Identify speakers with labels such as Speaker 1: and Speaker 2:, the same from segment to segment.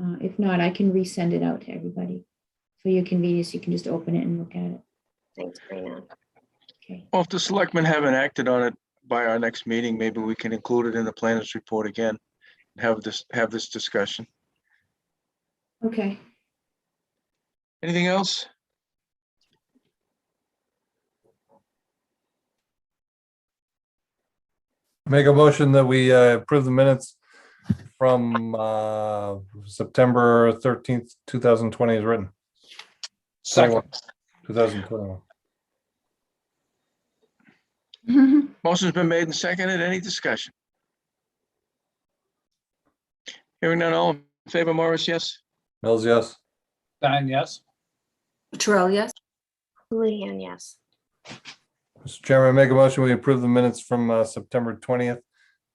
Speaker 1: Uh, if not, I can resend it out to everybody. For your convenience, you can just open it and look at it.
Speaker 2: Thanks, Brianna.
Speaker 1: Okay,
Speaker 3: Well, if the selectmen haven't acted on it by our next meeting, maybe we can include it in the planners report again. and Have this, have this discussion.
Speaker 1: okay.
Speaker 3: Anything else?
Speaker 4: Make a motion that we uh, approve the minutes from uh, September thirteenth, two thousand twenty is written. Second. Two thousand twenty-one.
Speaker 3: Motion's been made and seconded. Any discussion? Hearing none, all in favor, Morris, yes?
Speaker 4: Mills, yes.
Speaker 5: Stein, yes.
Speaker 6: Latrell, yes.
Speaker 2: Houlihan, yes.
Speaker 4: Mr. Chairman, make a motion, we approve the minutes from uh, September twentieth,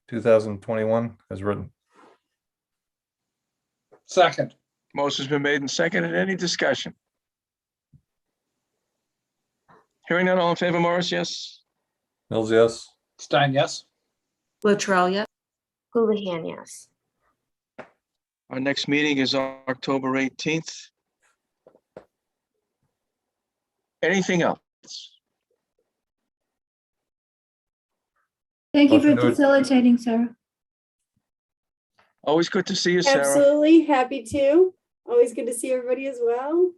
Speaker 4: two thousand twenty-one as written.
Speaker 5: Second,
Speaker 3: Motion's been made and seconded. Any discussion? Hearing none, all in favor, Morris, yes?
Speaker 4: Mills, yes.
Speaker 5: Stein, yes.
Speaker 6: Latrell, yes.
Speaker 2: Houlihan, yes.
Speaker 3: Our next meeting is on October 18th. Anything else?
Speaker 1: Thank you for
Speaker 4: Motion to ad-
Speaker 1: facilitating, Sarah.
Speaker 3: Always good to see you, Sarah.
Speaker 7: Absolutely, happy to. Always good to see everybody as well.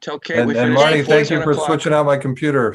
Speaker 3: Tell Kate
Speaker 4: And
Speaker 3: we
Speaker 4: and
Speaker 3: finished.
Speaker 4: Marty,
Speaker 3: before
Speaker 4: thank you
Speaker 3: 10
Speaker 4: for
Speaker 3: o'clock.
Speaker 4: switching out my computer.